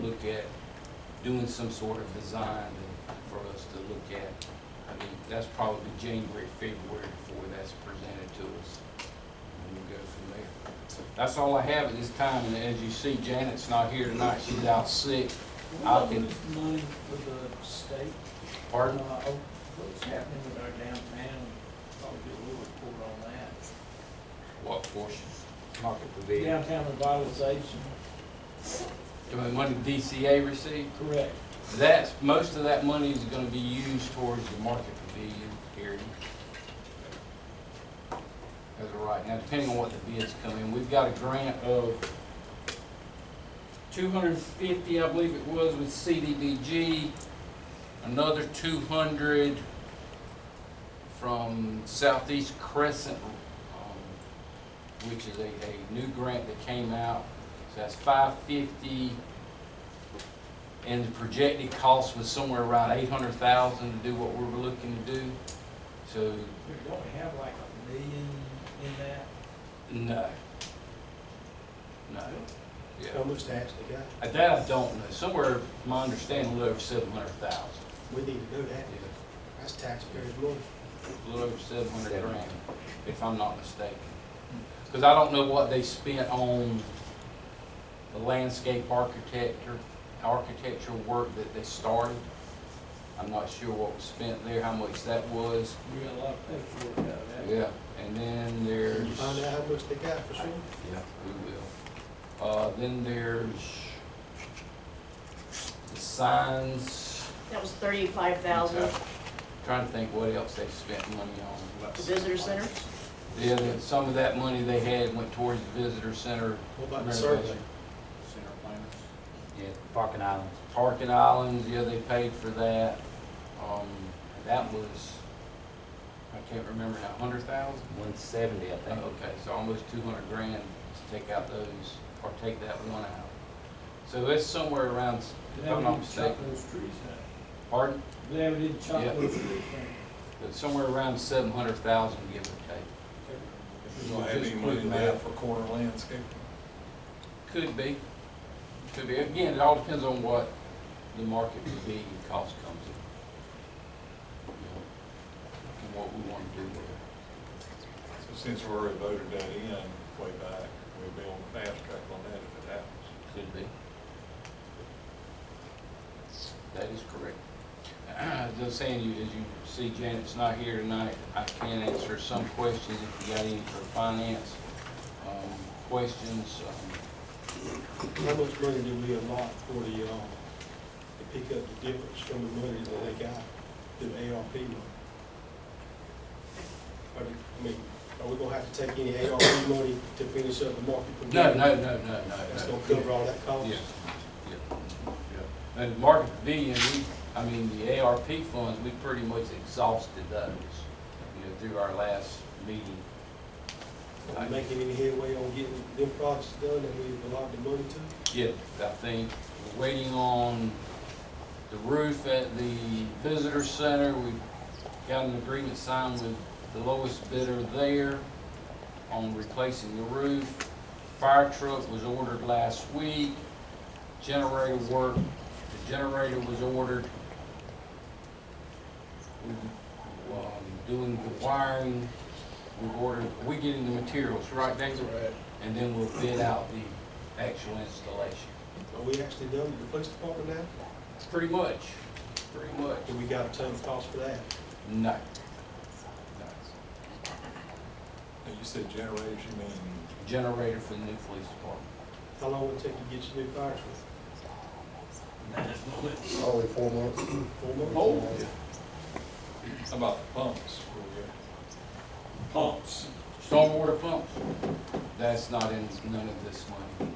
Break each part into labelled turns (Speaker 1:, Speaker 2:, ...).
Speaker 1: look at doing some sort of design and for us to look at. I mean, that's probably January, February before that's presented to us. And we'll go from there. That's all I have at this time, and as you see, Janet's not here tonight, she's out sick.
Speaker 2: What
Speaker 1: I
Speaker 2: about
Speaker 1: can-
Speaker 2: losing money for the state?
Speaker 1: Pardon?
Speaker 2: Uh, oh, What's happening with our downtown? I'll get a little report on that.
Speaker 1: What portion? Market pavilion.
Speaker 2: Downtown revitalization,
Speaker 1: The money DCA received?
Speaker 2: correct.
Speaker 1: That's, most of that money is gonna be used towards the market pavilion area. As of right now, depending on what the bids come in, we've got a grant of two hundred and fifty, I believe it was, with CDBG. Another two hundred from Southeast Crescent, um, which is a, a new grant that came out. So that's five fifty. And the projected cost was somewhere around eight hundred thousand to do what we were looking to do. So,
Speaker 2: Don't we have like a million in that?
Speaker 1: no. No.
Speaker 3: How
Speaker 1: Yeah.
Speaker 3: much they actually got?
Speaker 1: Uh, That I don't know. Somewhere, my understanding, a little over seven hundred thousand.
Speaker 3: We need to know that.
Speaker 1: A
Speaker 3: That's taxpayers' money.
Speaker 1: little over seven hundred grand, if I'm not mistaken. Because I don't know what they spent on the landscape architecture, architectural work that they started. I'm not sure what was spent there, how much that was.
Speaker 2: We got a lot of paperwork out of that.
Speaker 1: Yeah, and then there's.
Speaker 3: Can you find out how much they got for sure?
Speaker 1: Yeah, we will. Uh, then there's the signs.
Speaker 4: That was thirty-five thousand,
Speaker 1: Trying to think what else they spent money on.
Speaker 4: the visitor center,
Speaker 1: Yeah, then some of that money they had went towards the visitor center.
Speaker 3: What about the
Speaker 1: renovation.
Speaker 3: survey?
Speaker 1: Center planners.
Speaker 5: Yeah, Parking Island.
Speaker 1: Parking islands, yeah, they paid for that. Um, that was, I can't remember now, hundred thousand?
Speaker 5: One seventy, I think.
Speaker 1: Okay, so almost two hundred grand to take out those, or take that one out. So it's somewhere around, if
Speaker 2: Glad
Speaker 1: I'm
Speaker 2: we
Speaker 1: not
Speaker 2: didn't chop
Speaker 1: mistaken,
Speaker 2: those trees out.
Speaker 1: pardon?
Speaker 2: Glad we didn't chop
Speaker 1: Yeah.
Speaker 2: those trees down.
Speaker 1: But somewhere around seven hundred thousand, give or take.
Speaker 6: We don't have any money left for corner landscaping.
Speaker 1: Could be, could be. Again, it all depends on what the market would be and cost comes in. And what we want to do there.
Speaker 6: So since we already voted that in way back, we'll be on the fast track on that if it happens.
Speaker 1: Could be. That is correct. As I was saying, you, as you see Janet's not here tonight, I can answer some questions if you got any for finance, um, questions, um,
Speaker 3: How much money do we allot for the, uh, to pick up the difference from the money that they got through ARP money? Are, we- I mean, are we gonna have to take any ARP money to finish up the market? for
Speaker 1: No,
Speaker 3: them?
Speaker 1: no, no, no, no.
Speaker 3: That's
Speaker 1: no.
Speaker 3: gonna cover all that cost?
Speaker 1: Yeah, yeah, yeah. And Market Pavilion, we, I mean, the ARP funds, we pretty much exhausted those, you know, through our last meeting.
Speaker 3: Are we making any headway on getting them projects done that we've allotted the money to?
Speaker 1: Yeah, I think we're waiting on the roof at the visitor center. We've got an agreement signed with the lowest bidder there on replacing the roof. Fire truck was ordered last week. Generator work, the generator was ordered. We're um, doing the wiring. We've ordered, we getting the materials, right, David? And then we'll bid out the actual installation.
Speaker 3: Are we actually done with the police department now?
Speaker 1: Pretty much, pretty much.
Speaker 3: Do we got a ton of cost for that?
Speaker 1: No.
Speaker 6: And you said generators, you mean,
Speaker 1: Generator for the new police department.
Speaker 3: How long would it take to get your new fire truck?
Speaker 7: Only four months.
Speaker 3: Four months?
Speaker 6: how about the pumps? Were
Speaker 2: Pumps.
Speaker 1: Stormwater pumps, that's not in none of this money.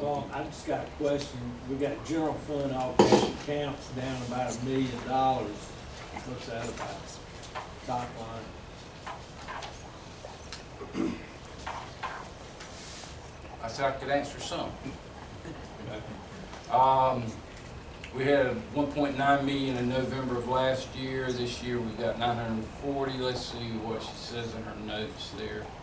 Speaker 2: Well, I just got a question. We got general fund operating accounts down about a million dollars. What's that about? Top line.
Speaker 1: I said I could answer some. Um, we had one point nine million in November of last year, this year we got nine hundred and forty, let's see what she says in her notes there. Um,